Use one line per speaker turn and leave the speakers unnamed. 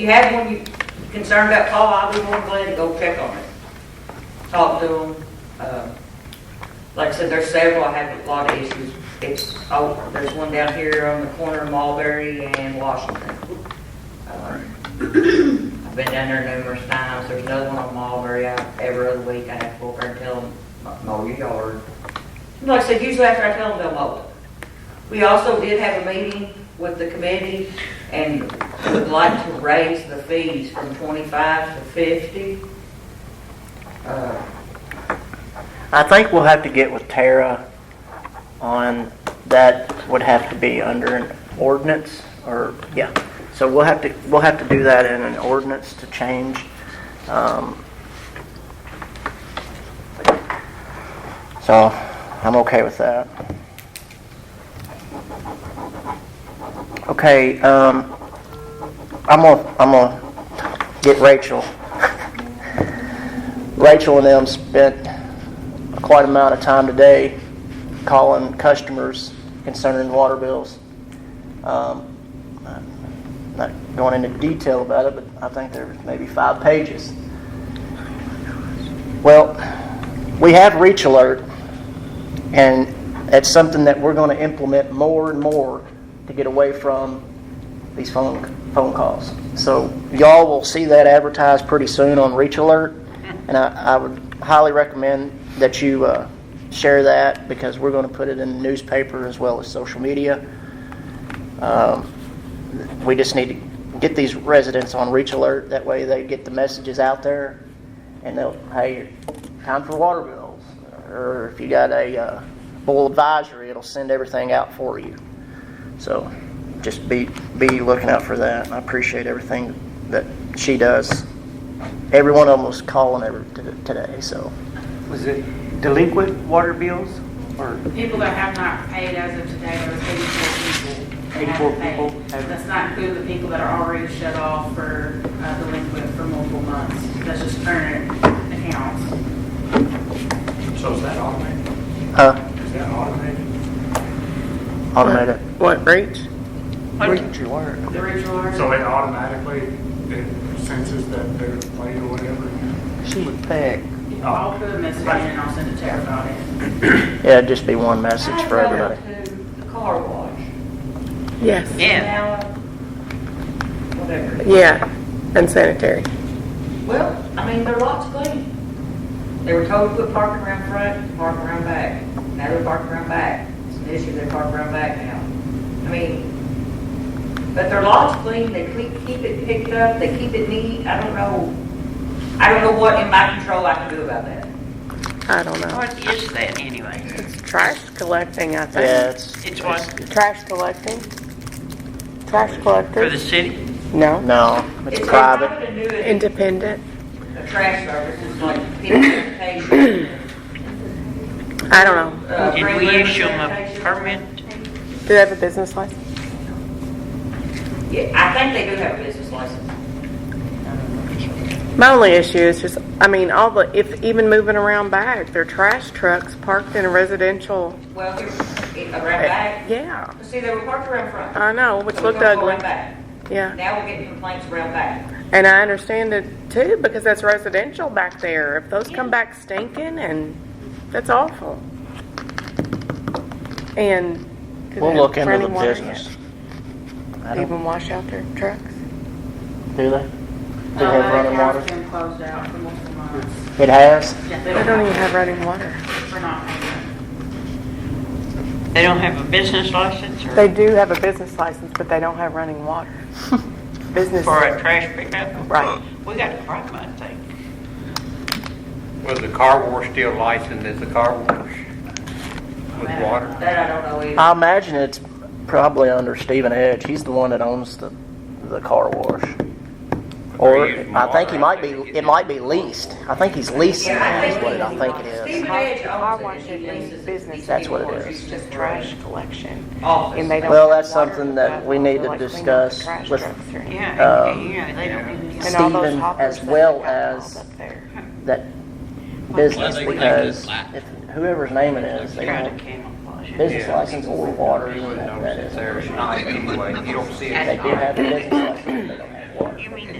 If you have one you concerned about Paul, I'll be more than glad to go check on it. Talk to them. Um, Like I said, there's several, I have a lot of issues. It's, oh, there's one down here on the corner of Mulberry and Washington. Um, I've been down there numerous times, there's another one on Mulberry, I, every other week I have to go over and tell them, mow your yard. And Like I said, usually after I tell them, they'll mow it. We also did have a meeting with the committee and would like to raise the fees from 25 to 50. Uh,
I think we'll have to get with Tara on, that would have to be under an ordinance, or, yeah. So we'll have to, we'll have to do that in an ordinance to change. um, So, I'm okay with that. Okay, um, I'm gonna, I'm gonna get Rachel. Rachel and them spent quite amount of time today calling customers concerning water bills. Um, I'm Not going into detail about it, but I think there was maybe five pages. Well, we have Reach Alert, and that's something that we're going to implement more and more to get away from these phone, phone calls. So y'all will see that advertised pretty soon on Reach Alert, and I, I would highly recommend that you uh, share that because we're going to put it in the newspaper as well as social media. Um, we just need to get these residents on Reach Alert. That way they get the messages out there and they'll, hey, time for water bills. Or if you got a uh, bull advisory, it'll send everything out for you. So just be, be looking out for that. and I appreciate everything that she does. Every one of them was calling every, t- today, so.
Was it delinquent water bills or
People that have not paid as of today, there's 84 people. that
84
haven't paid.
people have-
That's not including the people that are already shut off for uh, delinquent for multiple months. That's just current accounts.
So is that automated?
Uh,
Is that automated?
automated.
What, breach?
Reach Alert.
The original order,
So it automatically, it senses that they're late or whatever?
She would pick.
I'll put a message in and I'll send it to everybody.
Yeah, it'd just be one message for
I drove
everybody.
to the car wash.
Yes.
Now, Whatever.
Yeah, and sanitary.
Well, I mean, there are lots clean. They were told to put parking around front, parking around back. Now they're parking around back. It's an issue, they park around back now. I mean, but their lot's clean, they keep, keep it picked up, they keep it neat. I don't know, I don't know what in my control I can do about that.
I don't know.
What is that anyway?
It's trash collecting, I
Yeah,
think.
it's.
It's what,
Trash collecting? Trash
for the
collector?
city?
No.
No, it's private.
It's a private annuity,
Independent?
a trash service, it's like people sanitation.
I don't know.
uh,
Did
bring
we
litter
issue them a
sanitation.
permit?
Do they have a business license?
Yeah, I think they do have a business license.
My only issue is just, I mean, all the, if even moving around back, they're trash trucks parked in a residential.
Well, here, around back.
Yeah,
See, they were parked around front.
I know, Uh, which
So we're
looked
gonna go
ugly.
around back.
Yeah.
Now we're getting complaints around back.
And I understand it too, because that's residential back there. If those come back stinking and, that's awful. And. do they
We'll
have
look into the
running water yet?
business. I
They
don't,
Even wash out their trucks?
do they? Do they
Uh,
have running water?
That account's been closed out for multiple months.
It has?
Yeah,
They don't even have running water.
We're not paying.
They don't have a business license or
They do have a business license, but they don't have running water. Business,
for a trash pickup?
Right.
We got a problem, I think.
Was the car wash still licensed as a car wash? With water?
That I don't know either.
I imagine it's probably under Stephen Edge. He's the one that owns the, the car wash. Or, I think he might be, it might be leased. I think he's leasing
Yeah, I
it, is
think
what I
he-
think it is.
Stephen Edge owns it, he leases it. He's
That's what it
getting
is.
orders.
just trash collection.
Office.
Uh, And they don't
Well,
have
that's
water,
something that
but
we need to
like clean up the
discuss
trash
with-
trucks or anything.
Yeah,
Um,
and- yeah, they don't even.
And all those
Stephen,
hoppers
as
that they
well
got piled
as-
up there.
That business, because if, whoever's name it is, they
Try to
want
camouflage it.
business license or water,
You wouldn't
that
notice
that is.
it's there at night anyway, you don't see
They
it.
do have a business license, they don't have water.
You mean